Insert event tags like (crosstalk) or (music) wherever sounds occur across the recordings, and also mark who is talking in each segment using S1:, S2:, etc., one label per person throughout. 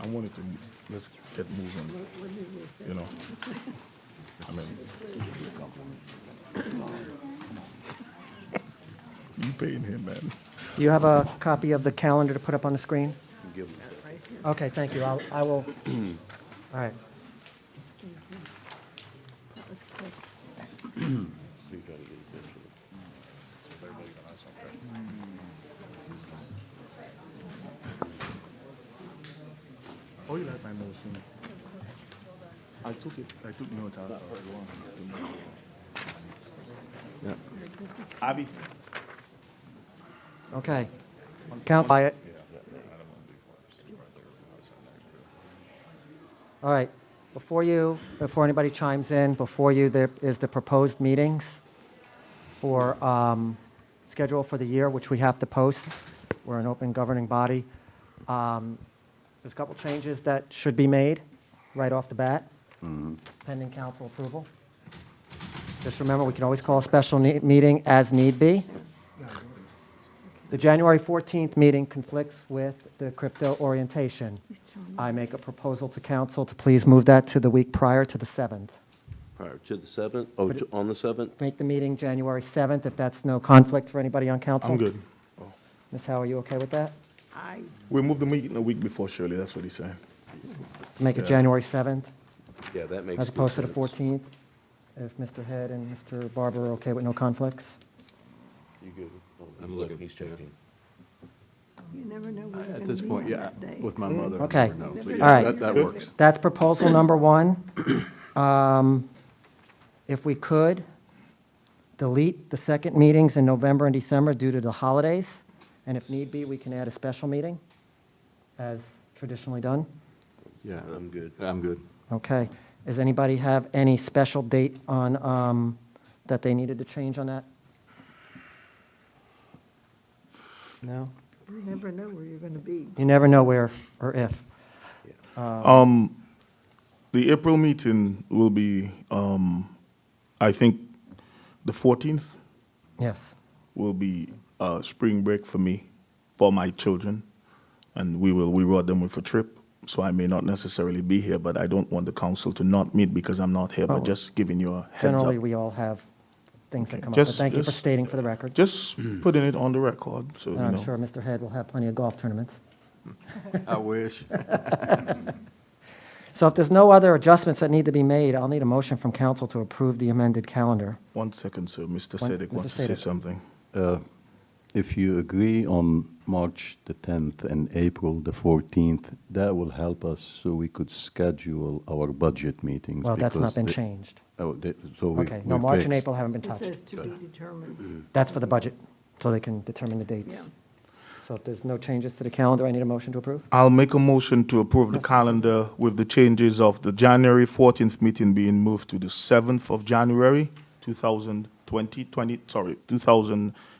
S1: I wanted to, let's get moving, you know? I mean. You paying him, man.
S2: Do you have a copy of the calendar to put up on the screen? Okay, thank you. I'll, I will, (clears throat) all right.
S1: Oh, you like my nose, you know? I took it, I took notes out of it. Abby?
S2: Okay. Count by it. All right. Before you, before anybody chimes in, before you, there is the proposed meetings for, um, schedule for the year, which we have to post. We're an open governing body. Um, There's a couple changes that should be made right off the bat, pending council approval. Just remember, we can always call a special ne- meeting as need be. The January 14th meeting conflicts with the crypto orientation. I make a proposal to council to please move that to the week prior to the 7th.
S3: Prior to the 7th, oh, to- on the 7th?
S2: Make the meeting January 7th, if that's no conflict for anybody on council.
S1: I'm good.
S2: Ms. Howe, are you okay with that?
S4: I,
S1: We moved the meeting a week before Shirley, that's what he's saying.
S2: To make it
S1: Yeah.
S2: January 7th,
S3: Yeah, that makes.
S2: as
S3: good
S2: opposed to the
S3: sense.
S2: 14th? If Mr. Head and Mr. Barber are okay with no conflicts?
S3: You good? Oh, he's
S5: I'm looking,
S3: He's checking.
S4: you never know where you're
S5: At
S4: going
S5: this
S4: to be on
S5: point, yeah,
S4: that day.
S5: with my mother. I
S2: Mm-hmm. Okay.
S5: never know. So,
S4: All
S5: yeah,
S2: right.
S5: That, that works.
S2: That's proposal number one. Um, If we could, delete the second meetings in November and December due to the holidays, and if need be, we can add a special meeting, as traditionally done.
S5: Yeah,
S3: I'm good.
S5: I'm good.
S2: Okay. Does anybody have any special date on, um, that they needed to change on that? No?
S4: You never know where you're going to be.
S2: You never know where or if.
S1: Uh-huh. Um, The April meeting will be, um, I think, the fourteenth
S2: Yes.
S1: will be, uh, spring break for me, for my children. And we will reward them with a trip, so I may not necessarily be here, but I don't want the council to not meet because I'm not here,
S2: Oh.
S1: but just giving you a heads up.
S2: Generally, we all have things that
S1: Okay.
S2: come up, but
S1: Just-
S2: thank you for
S1: just-
S2: stating for the record.
S1: Just putting it on the record, so you
S2: Hmm. And I'm
S1: know.
S2: sure Mr. Head will have plenty of golf tournaments.
S5: I wish.
S2: So if there's no other adjustments that need to be made, I'll need a motion from council to approve the amended calendar.
S1: One second, sir, Mr.
S2: One-
S1: Sedek
S2: Mr.
S1: wants to say
S2: Sadek.
S1: something.
S6: If you agree on March the 10th and April the 14th, that will help us so we could schedule our budget meetings.
S2: Well, that's not
S6: because
S2: been
S6: the-
S2: changed.
S6: Oh, the- so we.
S2: Okay, no,
S6: we
S2: March and
S6: fixed.
S2: April haven't been
S4: It says
S2: touched.
S4: to be
S5: Mm,
S4: determined.
S2: That's for the budget, so they can determine the dates.
S4: Yeah.
S2: So if there's no changes to the calendar, I need a motion to approve?
S1: I'll make a motion to approve the calendar with the changes of the January 14th meeting being moved to the 7th of January 2020, 20, sorry,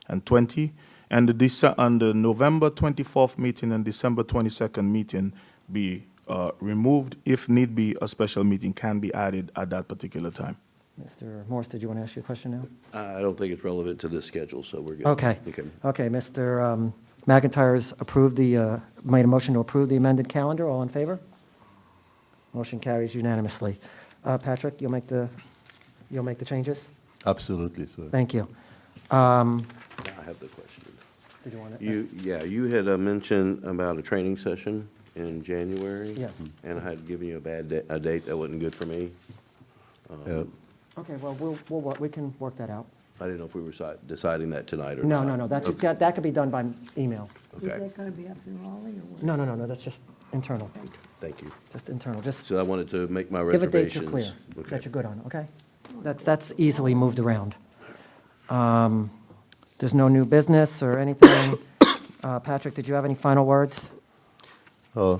S1: 2020, and the Dece- and the November 24th meeting and December 22nd meeting be uh, removed. If need be, a special meeting can be added at that particular time.
S2: Mr. Morse, did you want to ask you a question now?
S3: I I don't think it's relevant to this schedule, so we're good.
S2: Okay. Okay, Mr. um, McIntyre's approved the, uh, made a motion to approve the amended calendar. All in favor? Motion carries unanimously. Uh, Patrick, you'll make the, you'll make the changes?
S6: Absolutely, sir.
S2: Thank you.
S3: Now I have the question.
S2: Did you want to?
S3: You, yeah, you had uh, mentioned about a training session in January.
S2: Yes.
S3: And I had given you a bad, da- a date that wasn't good for me.
S6: Uh,
S2: Okay, well, we'll, we'll, wo- we can work that out.
S3: I didn't know if we were si- deciding that tonight or
S2: No,
S3: not.
S2: no, no, that, should-
S3: Okay.
S2: that that could be done by email.
S4: Is
S3: Okay.
S4: that going to be up in Raleigh or what?
S2: No, no, no, no, that's just internal,
S3: Thank you.
S2: just internal, just
S3: So I wanted to make my
S2: give a
S3: reservations.
S2: date you're clear, that
S3: Okay.
S2: you're good on, okay? That's, that's easily moved around. Um, There's no new business or anything. (coughs) Uh, Patrick, did you have any final words?
S6: uh,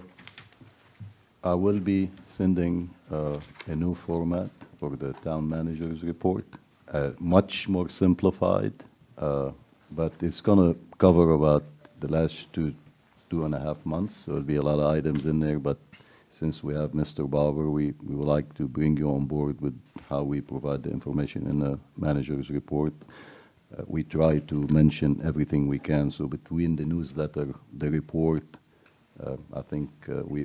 S6: I will be sending uh, a new format for the town manager's report, uh, much more simplified, uh, but it's going to cover about the last two, two and a half months. So There'll be a lot of items in there, but since we have Mr. Bauer, we, we would like to bring you on board with how we provide the information in the manager's report. Uh, We try to mention everything we can, so between the newsletter, the report, uh, I think uh, we,